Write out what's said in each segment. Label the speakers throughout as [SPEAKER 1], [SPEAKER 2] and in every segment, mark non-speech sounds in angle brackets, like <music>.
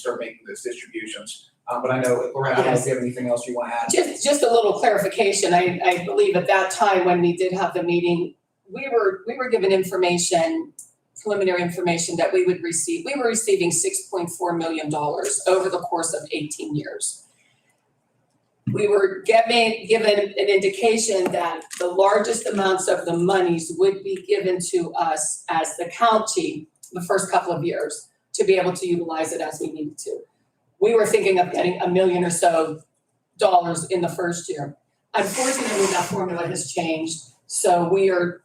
[SPEAKER 1] start making those distributions. Um, but I know, Loretta, I don't know if you have anything else you want to
[SPEAKER 2] <laughs>
[SPEAKER 1] add.
[SPEAKER 2] Just, just a little clarification, I, I believe at that time when we did have the meeting, we were, we were given information, preliminary information that we would receive, we were receiving six point four million dollars over the course of eighteen years. We were given, given an indication that the largest amounts of the monies would be given to us as the county the first couple of years to be able to utilize it as we needed to. We were thinking of getting a million or so dollars in the first year. Unfortunately, that formula has changed, so we are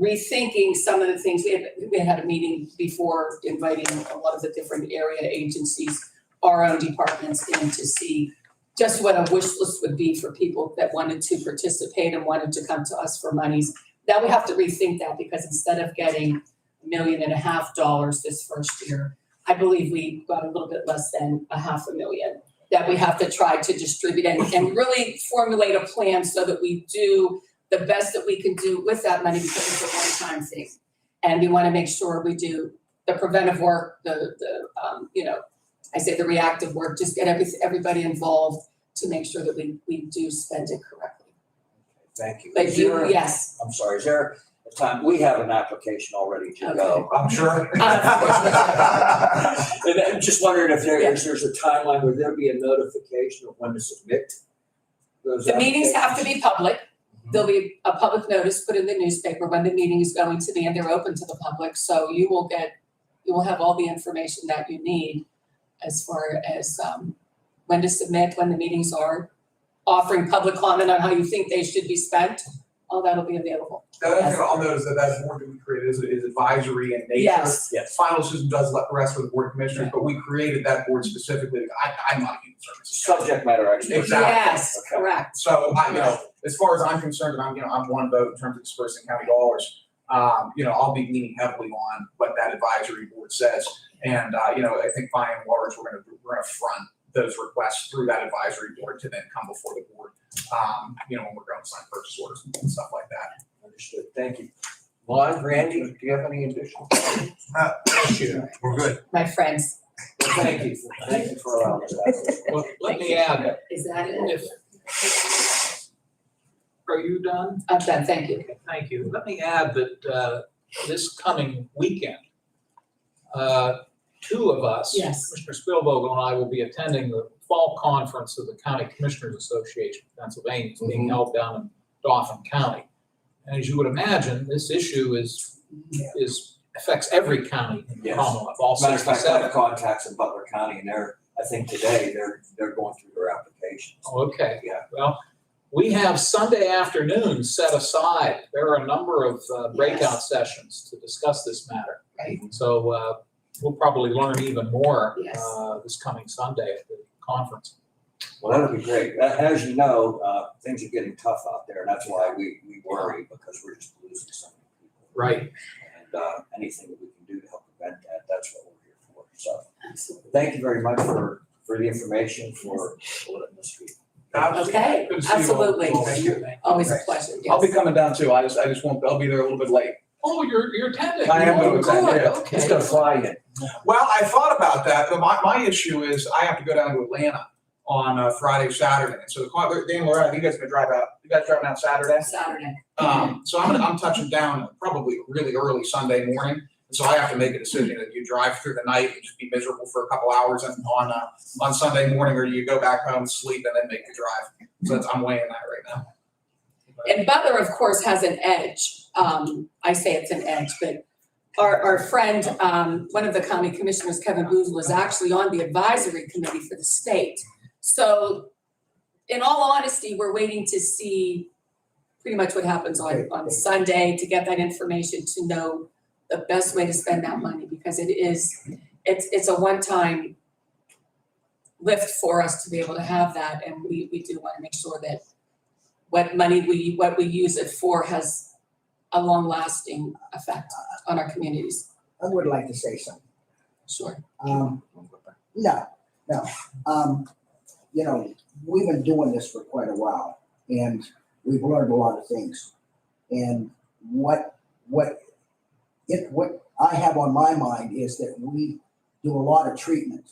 [SPEAKER 2] rethinking some of the things. We had, we had a meeting before inviting a lot of the different area agencies, our own departments in to see just what a wish list would be for people that wanted to participate and wanted to come to us for monies. Now we have to rethink that because instead of getting a million and a half dollars this first year, I believe we got a little bit less than a half a million that we have to try to distribute and, and really formulate a plan so that we do the best that we can do with that money because it's a one-time thing. And we want to make sure we do the preventive work, the, the, um, you know, I say the reactive work, just get every, everybody involved to make sure that we, we do spend it correctly.
[SPEAKER 3] Thank you.
[SPEAKER 2] But
[SPEAKER 3] Is
[SPEAKER 2] you,
[SPEAKER 3] there-
[SPEAKER 2] yes,
[SPEAKER 3] I'm sorry, is there a time, we have an application already to go.
[SPEAKER 1] I'm sure.
[SPEAKER 2] <laughs>
[SPEAKER 3] Uh, <laughs> And I'm just wondering if there, if there's a timeline, would there be a notification of when to submit? those
[SPEAKER 2] the meetings have to
[SPEAKER 3] applications?
[SPEAKER 2] be public.
[SPEAKER 1] Mm-hmm.
[SPEAKER 2] There'll be a public notice put in the newspaper when the meeting is going to be, and they're open to the public, so you will get, you will have all the information that you need as far as, um, when to submit, when the meetings are, offering public comment on how you think they should be spent, all that'll be available.
[SPEAKER 1] The other thing I'll note is that that board that we created is, is advisory in nature.
[SPEAKER 2] Yes,
[SPEAKER 3] Yes.
[SPEAKER 1] Final decision does let the rest with the board of commissioners, but we created that board specifically. I, I'm not a human services. guy.
[SPEAKER 3] Subject matter expert.
[SPEAKER 1] Exactly.
[SPEAKER 2] yes,
[SPEAKER 3] Okay.
[SPEAKER 2] correct.
[SPEAKER 1] So I, you know, as far as I'm concerned, and I'm, you know, I'm one vote in terms of dispersing county dollars. Um, you know, I'll be leaning heavily on what that advisory board says. And, uh, you know, I think by and large, we're gonna, we're gonna front those requests through that advisory board to then come before the board. Um, you know, when we're going to sign purchase orders and stuff like that.
[SPEAKER 3] Understood, thank you. Lon, Randy, do you have any additional? comments?
[SPEAKER 4] We're good.
[SPEAKER 2] My friends,
[SPEAKER 3] Well, Thank you, for- thank you for allowing us that.
[SPEAKER 5] Well, let me add,
[SPEAKER 2] is that it?
[SPEAKER 5] if. Are you done?
[SPEAKER 2] I'm done, thank you.
[SPEAKER 5] Okay, Thank you. Let me add that, uh, this coming weekend, uh, two of us.
[SPEAKER 2] Yes.
[SPEAKER 5] Commissioner Spielvogel and I will be attending the fall conference of the County Commissioners Association of Pennsylvania, It's
[SPEAKER 3] Mm-hmm.
[SPEAKER 5] being held down in Dauphin County. And as you would imagine, this issue is, is, affects every county in the
[SPEAKER 3] Yes.
[SPEAKER 5] Commonwealth, all
[SPEAKER 3] Matter of fact, I have
[SPEAKER 5] sixty-seven.
[SPEAKER 3] contacts in Butler County and they're, I think today, they're, they're going through their applications.
[SPEAKER 5] Oh, Okay.
[SPEAKER 3] Yeah.
[SPEAKER 5] Well, we have Sunday afternoon set aside. There are a number of uh, breakout sessions to discuss this matter.
[SPEAKER 2] Right.
[SPEAKER 5] So uh, we'll probably learn even more
[SPEAKER 2] Yes.
[SPEAKER 5] uh, this coming Sunday at the conference.
[SPEAKER 3] Well, that'd be great. A- As you know, uh, things are getting tough out there, and that's why we, we worry, because we're just losing so many people.
[SPEAKER 5] Right.
[SPEAKER 3] And, uh, anything that we can do to help prevent that, that's what we're here for. So,
[SPEAKER 2] Absolutely.
[SPEAKER 3] thank you very much for, for the information, for letting us speak.
[SPEAKER 2] Okay,
[SPEAKER 1] Good to see you all.
[SPEAKER 2] absolutely.
[SPEAKER 1] Thank you.
[SPEAKER 2] Always a pleasure, yes.
[SPEAKER 1] I'll be coming down too. I just, I just won't, I'll be there a little bit late.
[SPEAKER 5] Oh, you're, you're attending.
[SPEAKER 3] I am going
[SPEAKER 5] Oh,
[SPEAKER 3] to attend,
[SPEAKER 5] good,
[SPEAKER 3] yeah.
[SPEAKER 5] okay.
[SPEAKER 3] It's gonna fly in.
[SPEAKER 1] Well, I thought about that, but my, my issue is I have to go down to Atlanta on uh, Friday, Saturday. And so the car, Dan, Loretta, you guys gonna drive out, you guys driving out Saturday?
[SPEAKER 2] Saturday.
[SPEAKER 1] Um, so I'm, gonna- I'm touching down probably really early Sunday morning. And so I have to make a decision that you drive through the night and just be miserable for a couple hours and on, uh, on Sunday morning, or you go back home, sleep and then make the drive. So that's, I'm weighing that right now.
[SPEAKER 2] And Butler, of course, has an edge. Um, I say it's an edge, but our, our friend, um, one of the county commissioners, Kevin Booth, was actually on the advisory committee for the state. So in all honesty, we're waiting to see pretty much what happens on, on Sunday to get that information to know the best way to spend that money because it is, it's, it's a one-time lift for us to be able to have that. And we, we do want to make sure that what money we, what we use it for has a long-lasting effect on our communities.
[SPEAKER 6] I would like to say something.
[SPEAKER 2] Sure.
[SPEAKER 6] Um, no, no. Um, you know, we've been doing this for quite a while and we've learned a lot of things. And what, what, it, what I have on my mind is that we do a lot of treatment